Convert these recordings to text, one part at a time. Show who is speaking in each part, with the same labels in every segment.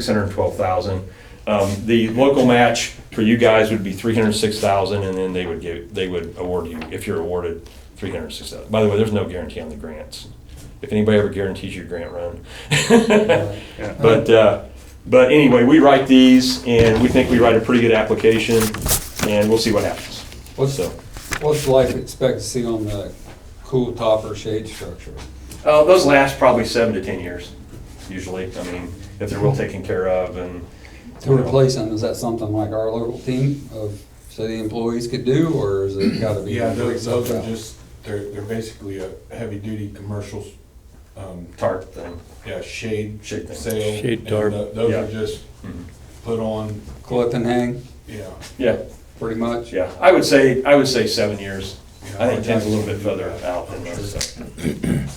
Speaker 1: six hundred and twelve thousand. Um, the local match for you guys would be three hundred and six thousand, and then they would give, they would award you, if you're awarded, three hundred and six thousand. By the way, there's no guarantee on the grants. If anybody ever guarantees you a grant run. But, uh, but anyway, we write these, and we think we write a pretty good application, and we'll see what happens.
Speaker 2: What's,
Speaker 1: So.
Speaker 2: what's life expectancy on the cool topper shade structure?
Speaker 1: Uh, those last probably seven to ten years, usually. I mean, if they're well taken care of and.
Speaker 2: To replace them, is that something like our local team of city employees could do, or is it gotta be?
Speaker 3: Yeah, those, those are
Speaker 2: Yeah.
Speaker 3: just, they're, they're basically a heavy-duty commercial, um,
Speaker 1: Tarp thing.
Speaker 3: yeah, shade
Speaker 1: Shade thing.
Speaker 3: sale. Shade
Speaker 4: tarp.
Speaker 3: Those
Speaker 1: Yeah.
Speaker 3: are just
Speaker 1: Mhm.
Speaker 3: put on,
Speaker 2: Clip and hang,
Speaker 3: yeah.
Speaker 1: Yeah.
Speaker 2: pretty much?
Speaker 1: Yeah, I would say, I would say seven years.
Speaker 3: you know,
Speaker 1: I think ten's a little
Speaker 3: we're
Speaker 1: bit
Speaker 3: not gonna
Speaker 1: further
Speaker 3: do that.
Speaker 1: out than
Speaker 3: I'm sure.
Speaker 1: those. so.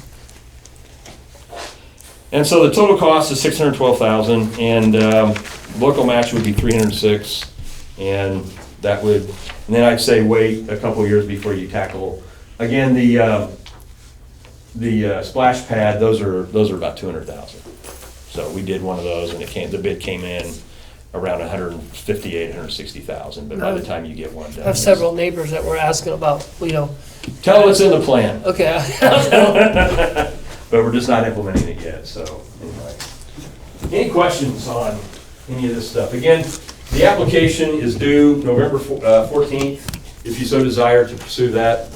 Speaker 1: And so the total cost is six hundred twelve thousand, and um, local match would be three hundred six, and that would, and then I'd say wait a couple years before you tackle. Again, the, uh, the uh, splash pad, those are, those are about two hundred thousand. So we did one of those, and it came, the bid came in around a hundred and fifty-eight, hundred and sixty thousand, but by the time you get one done.
Speaker 5: I have
Speaker 1: it's-
Speaker 5: several neighbors that were asking about, you know,
Speaker 1: Tell them it's in the plan,
Speaker 5: okay,
Speaker 1: but we're just not implementing it yet, so anyway. Any questions on any of this stuff? Again, the application is due November four- uh, 14th, if you so desire to pursue that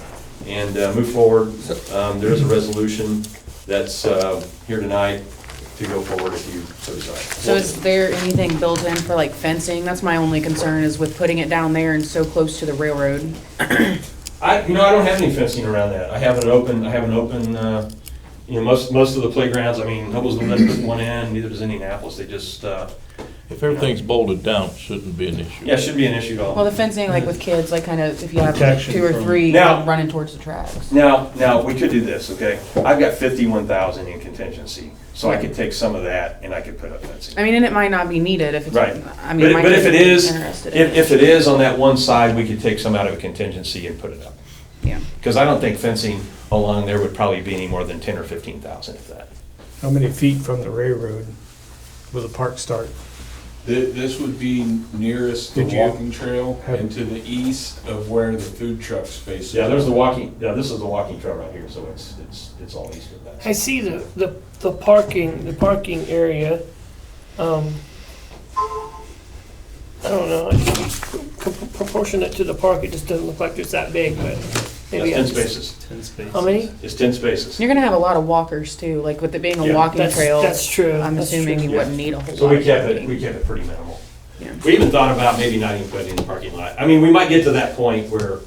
Speaker 1: and uh, move forward. Um, There is a resolution that's uh, here tonight to go forward if you so
Speaker 6: So
Speaker 1: desire.
Speaker 6: is there anything built in for like fencing? That's my only concern is with putting it down there and so close to the railroad.
Speaker 1: I, you know, I don't have any fencing around that. I have an open, I have an open, uh, you know, most, most of the playgrounds, I mean, Hubble's the limit at one end, neither does Indianapolis, they just, uh,
Speaker 4: If everything's bolted down, it shouldn't be an issue.
Speaker 1: yeah, it shouldn't be an issue at all.
Speaker 6: Well, the fencing, like with kids, like kind of if you have
Speaker 7: Protection
Speaker 6: two or
Speaker 7: from-
Speaker 6: three
Speaker 1: Now-
Speaker 6: running towards the tracks.
Speaker 1: Now, now, we could do this, okay? I've got fifty-one thousand in contingency, so I could take some of that and I could put up fencing.
Speaker 6: I mean, and it might not be needed if it's,
Speaker 1: Right.
Speaker 6: I mean,
Speaker 1: But,
Speaker 6: my
Speaker 1: but
Speaker 6: kids
Speaker 1: if it
Speaker 6: would be
Speaker 1: is,
Speaker 6: interested
Speaker 1: if,
Speaker 6: in it.
Speaker 1: if it is on that one side, we could take some out of a contingency and put it up.
Speaker 6: Yeah.
Speaker 1: Because I don't think fencing along there would probably be any more than ten or fifteen thousand if that.
Speaker 7: How many feet from the railroad will the park start?
Speaker 3: Thi- This would be nearest the
Speaker 7: Did you
Speaker 3: walking trail
Speaker 7: have-
Speaker 3: and to the east of where the food trucks space.
Speaker 1: Yeah, there's the walking, yeah, this is the walking trail right here, so it's, it's, it's all east of that.
Speaker 5: I see the, the, the parking, the parking area, um, I don't know, I- com- proportionate to the park, it just doesn't look like it's that big, but
Speaker 1: That's
Speaker 5: maybe.
Speaker 1: ten
Speaker 5: I'm just-
Speaker 1: spaces.
Speaker 5: How many?
Speaker 1: It's ten spaces.
Speaker 6: You're gonna have a lot of walkers too, like with it being
Speaker 1: Yeah.
Speaker 6: a walking
Speaker 5: That's,
Speaker 6: trail.
Speaker 5: that's true.
Speaker 6: I'm
Speaker 5: that's
Speaker 6: assuming
Speaker 5: true.
Speaker 6: you wouldn't need a whole lot.
Speaker 1: So we
Speaker 6: of
Speaker 1: kept it,
Speaker 6: parking.
Speaker 1: we kept it pretty minimal.
Speaker 6: Yeah.
Speaker 1: We even thought about maybe not even putting it in the parking lot. I mean, we might get to that point where,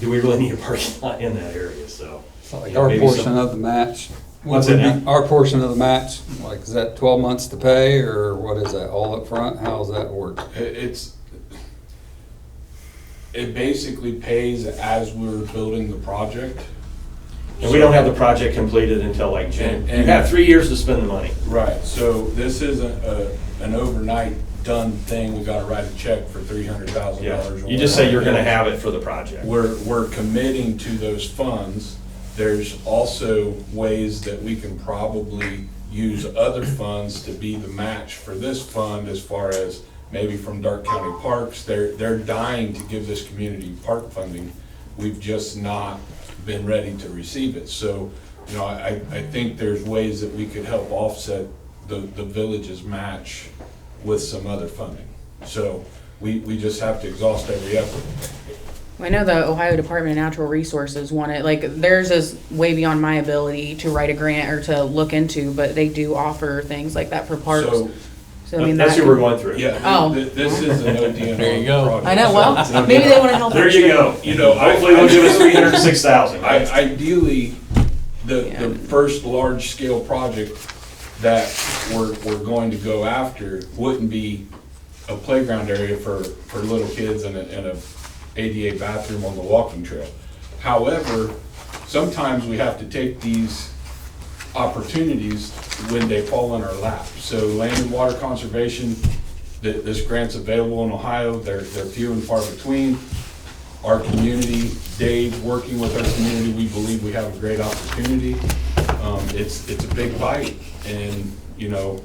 Speaker 1: do we really need a parking lot in that area, so.
Speaker 2: So like
Speaker 1: Yeah,
Speaker 2: our
Speaker 1: maybe
Speaker 2: portion
Speaker 1: some-
Speaker 2: of the match? would
Speaker 1: What's that
Speaker 2: be-
Speaker 1: now?
Speaker 2: Our portion of the match, like, is that twelve months to pay, or what is that, all up front? How's that work?
Speaker 3: It- It's, it basically pays as we're building the project.
Speaker 1: And we don't have the project completed until like June.
Speaker 3: And-
Speaker 1: You
Speaker 3: and-
Speaker 1: have three years to spend the money.
Speaker 3: Right, so this isn't a, an overnight done thing, we gotta write a check for three hundred thousand
Speaker 1: Yeah,
Speaker 3: dollars.
Speaker 1: you just say you're gonna have it for the project.
Speaker 3: We're, we're committing to those funds. There's also ways that we can probably use other funds to be the match for this fund as far as maybe from Dark County Parks, they're, they're dying to give this community park funding. We've just not been ready to receive it. So, you know, I, I think there's ways that we could help offset the, the village's match with some other funding. So we, we just have to exhaust every effort.
Speaker 6: I know the Ohio Department of Natural Resources wanted, like, theirs is way beyond my ability to write a grant or to look into, but they do offer things like that for parks.
Speaker 3: So
Speaker 6: So I mean,
Speaker 1: That's
Speaker 6: that
Speaker 1: who we're going through.
Speaker 3: Yeah,
Speaker 6: Oh.
Speaker 3: th- th- this is an ODNR.
Speaker 4: There you go.
Speaker 3: project.
Speaker 6: I know, well, maybe they wanna help.
Speaker 1: There
Speaker 6: us.
Speaker 1: you go.
Speaker 3: You know, I-
Speaker 1: Hopefully they'll give us three hundred and six thousand.
Speaker 3: I- Ideally, the, the
Speaker 6: Yeah.
Speaker 3: first large-scale project that we're, we're going to go after wouldn't be a playground area for, for little kids and a, and a ADA bathroom on the walking trail. However, sometimes we have to take these opportunities when they fall in our lap. So land and water conservation, th- this grant's available in Ohio, they're, they're few and far between. Our community, Dave, working with our community, we believe we have a great opportunity. Um, It's, it's a big bite, and, you know,